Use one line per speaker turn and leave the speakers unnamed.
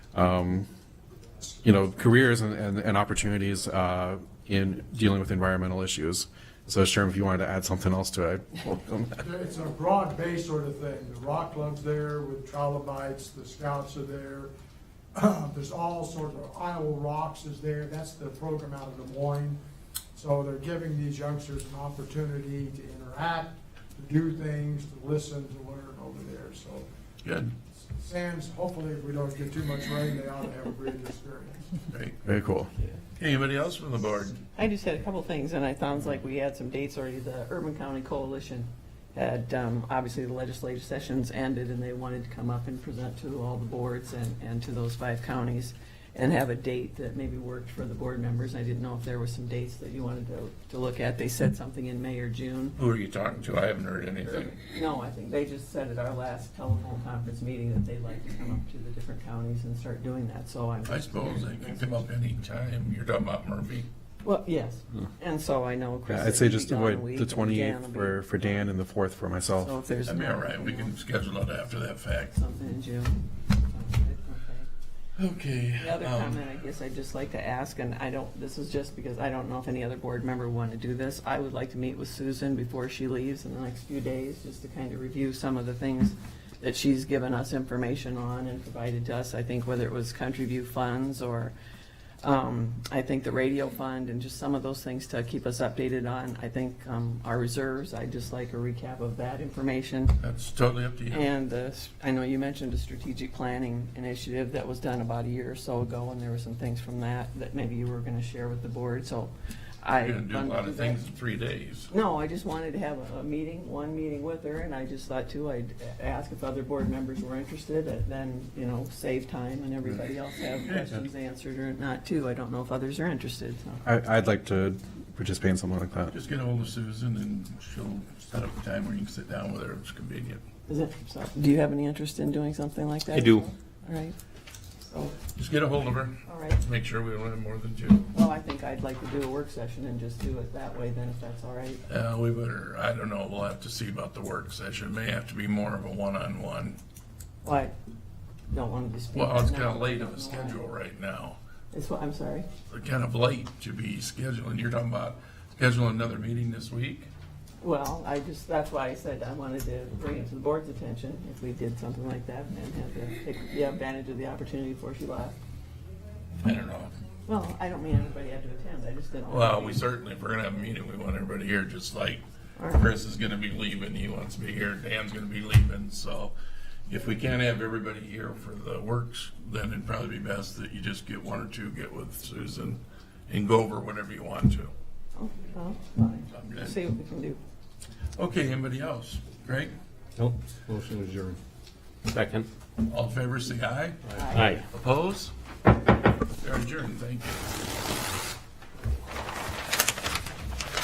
um, you know, careers and, and, and opportunities uh, in dealing with environmental issues. So Sherm, if you wanted to add something else to it, I welcome that.
It's a broad base sort of thing. The rock club's there with trilobites, the scouts are there. There's all sorts of, Iowa Rocks is there, that's the program out of Des Moines. So they're giving these youngsters an opportunity to interact, to do things, to listen, to learn over there, so.
Good.
Sands, hopefully if we don't get too much rain, they ought to have a great experience.
Great.
Very cool.
Anybody else from the board?
I just had a couple things, and it sounds like we had some dates already. The Urban County Coalition had, um, obviously, the legislative sessions ended, and they wanted to come up and present to all the boards and, and to those five counties and have a date that maybe worked for the board members. I didn't know if there were some dates that you wanted to, to look at. They said something in May or June.
Who are you talking to? I haven't heard anything.
No, I think they just said at our last telephone conference meeting that they'd like to come up to the different counties and start doing that, so I'm.
I suppose they can come up any time. You're talking about Murphy.
Well, yes, and so I know Chris.
Hmm. Yeah, I'd say
will be
just
gone a
avoid
week,
the
and Dan
28th
will be-
for, for Dan and the 4th for
So
myself.
if there's.
That'd be
no-
all right. We can schedule it after that fact.
Something in June. Okay.
Okay.
The other
um,
comment, I guess I'd just like to ask, and I don't, this is just because I don't know if any other board member would want to do this. I would like to meet with Susan before she leaves in the next few days, just to kind of review some of the things that she's given us information on and provided to us. I think whether it was Country View funds or, um, I think the radio fund and just some of those things to keep us updated on. I think, um, our reserves, I'd just like a recap of that information.
That's totally up to you.
And the, I know you mentioned a strategic planning initiative that was done about a year or so ago, and there were some things from that that maybe you were gonna share with the board, so I.
You're gonna do a lot of
that.
things in three days.
No, I just wanted to have a, a meeting, one meeting with her, and I just thought too, I'd ask if other board members were interested, and then, you know, save time and everybody else have questions answered or not too. I don't know if others are interested, so.
I, I'd like to participate in something like that.
Just get ahold of Susan and she'll set up a time where you can sit down with her if it's convenient.
Is it, so, do you have any interest in doing something like that?
I do.
All right, so,
Just get a hold of her.
all right.
Make sure we don't have more than two.
Well, I think I'd like to do a work session and just do it that way then, if that's all right.
Uh, we better, I don't know, we'll have to see about the work session. May have to be more of a one-on-one.
Well, I don't want to dispute.
Well, it's
that
kinda
now.
late of a schedule right now.
It's what, I'm sorry.
kind of late to be scheduling. You're talking about scheduling another meeting this week?
Well, I just, that's why I said I wanted to bring it to the board's attention if we did something like that and have to take the advantage of the opportunity before she left.
I don't know.
Well, I don't mean everybody had to attend. I just didn't. want
Well,
to-
we certainly, if we're gonna have a meeting, we want everybody here, just like
All right.
Chris is gonna be leaving, he wants to be here, Dan's gonna be leaving, so if we can't have everybody here for the works, then it'd probably be best that you just get one or two, get with Susan and go over whatever you want to.
Oh, well, fine.
I'm
We'll
good.
See what we can do.
Okay, anybody else? Greg,
Nope, motion adjourned. Second.
all in favor, say aye.
Aye.
Oppose? They're adjourned, thank you.